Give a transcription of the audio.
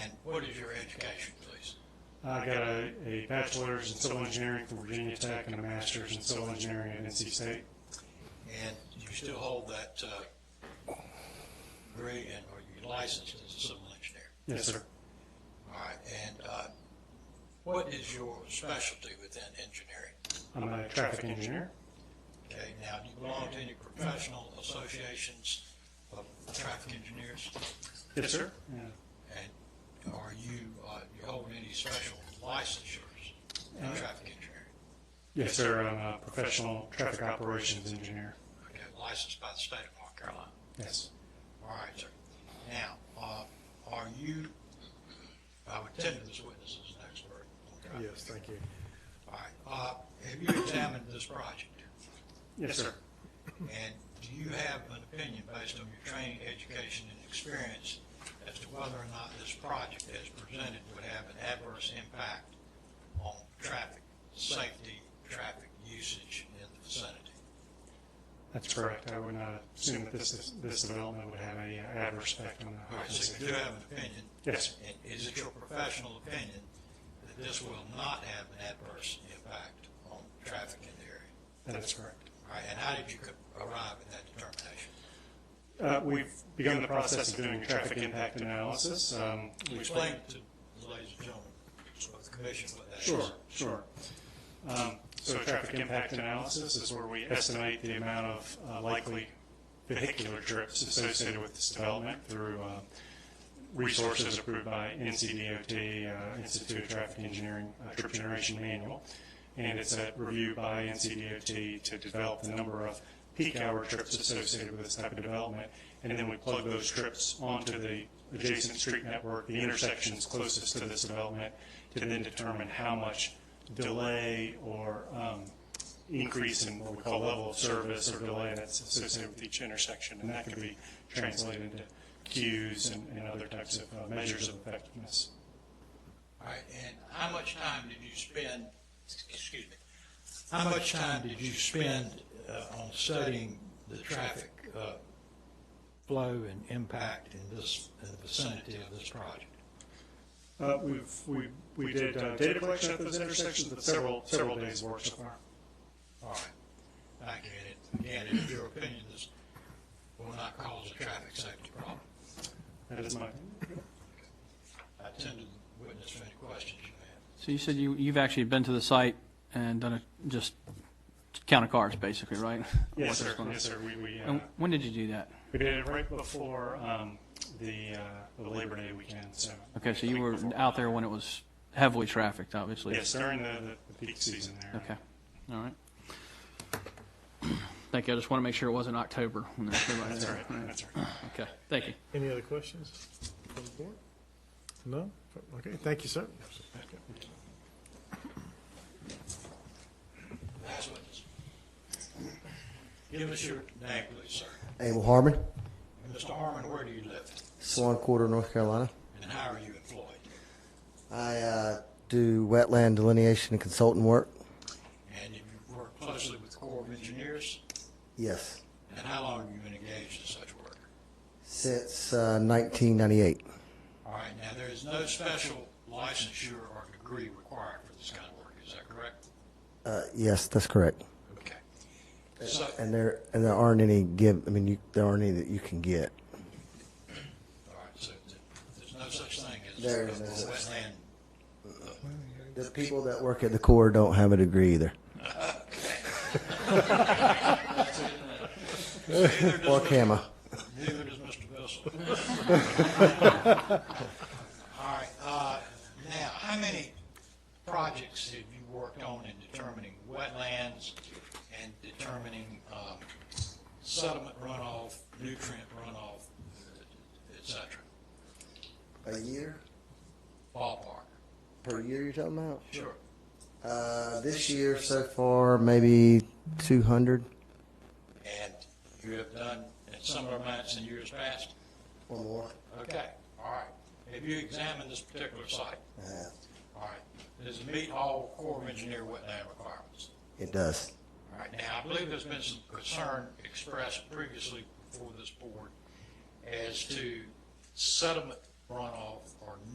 What is your education, please? I got a, a bachelor's in civil engineering from Virginia Tech and a master's in civil engineering at NC State. And you still hold that uh, degree and are you licensed as a civil engineer? Yes, sir. All right, and uh, what is your specialty within engineering? I'm a traffic engineer. Okay, now, do you belong to any professional associations of traffic engineers? Yes, sir. And are you, uh, you hold any special licensures in traffic engineering? Yes, sir. I'm a professional traffic operations engineer. Okay, licensed by the state of North Carolina? Yes. All right, sir. Now, uh, are you, I would tender this witness as an expert. okay? Yes, thank you. All right, uh, have you examined this project? Yes, sir. And do you have an opinion based on your training, education, and experience as to whether or not this project as presented would have an adverse impact on traffic, safety, traffic usage in the vicinity? That's correct. I would not assume that this, this development would have any adverse effect on the All health right, and so you safety. do have an opinion, Yes, sir. and is it your professional opinion that this will not have an adverse impact on traffic in the area? That is correct. All right, and how did you co- arrive at that determination? Uh, we've begun the process of doing traffic impact analysis. Um, we Explain to the ladies and gentlemen, so the commission, what that is. Sure, sure. Um, So a traffic impact analysis is where we estimate the amount of uh, likely vehicular trips associated with this development through uh, resources approved by NCDOT, uh, Institute of Traffic Engineering uh, Trip Generation Manual. And it's a review by NCDOT to develop the number of peak hour trips associated with this type of development. And then we plug those trips onto the adjacent street network, the intersections closest to this development, to then determine how much delay or um, increase in what we call level of service or delay that's associated with each intersection. And that could be translated into queues and, and other types of uh, measures of effectiveness. All right, and how much time did you spend, excuse me, how much time did you spend uh, on studying the traffic uh, flow and impact in this, in the vicinity of this project? Uh, we've, we, we did uh, data collection at those intersections, but several, several days work so far. All right, I get it. Again, in your opinion, this will not cause a traffic safety problem. That is my opinion. I tend to witness for any questions you have. So you said you, you've actually been to the site and done a, just count of cars, basically, right? Yes, What's sir. going on. Yes, sir. We, we, uh, And when did you do that? we did it right before um, the, uh, the Labor Day weekend. So Okay, so the you week were before. out there when it was heavily trafficked, obviously. Yes, during the, the peak season there. Okay, all right. Thank you, I just want to make sure it wasn't October. when there was nobody That's there. all right. That's all right. Okay, thank you. Any other questions from the board? No? Okay, thank you, sir. Last witness. Give us your name, please, sir. Abel Harmon, Mr. Harmon, where do you live? Swan Quarter, North Carolina. And how are you employed? I uh, do wetland delineation and consultant work. And you work closely with the Corps of Engineers? Yes, And how long have you been engaged in such work? since uh, 1998. All right, now, there is no special licensure or degree required for this kind of work, is that correct? Uh, yes, that's correct. Okay. So, And there and there aren't any give. I mean, you, there aren't any that you can get. all right, so th- there's no such thing as There a is no such wetland. The people that work at the Corps don't have a degree either, Neither does or Mr. CAMA. Neither does Mr. Bissell. All right, uh, now, how many projects have you worked on in determining wetlands and determining um, sediment runoff, nutrient runoff, et cetera? A year Ballpark? per year, you're talking about? Sure. Uh, this year so far, maybe 200 And you have done in similar amounts in years past? or more. Okay, all right. Have you examined this particular site? I have. All right. Does it meet all Corps of Engineer wetland requirements? It does. All right, now, I believe there's been some concern expressed previously before this board as to sediment runoff or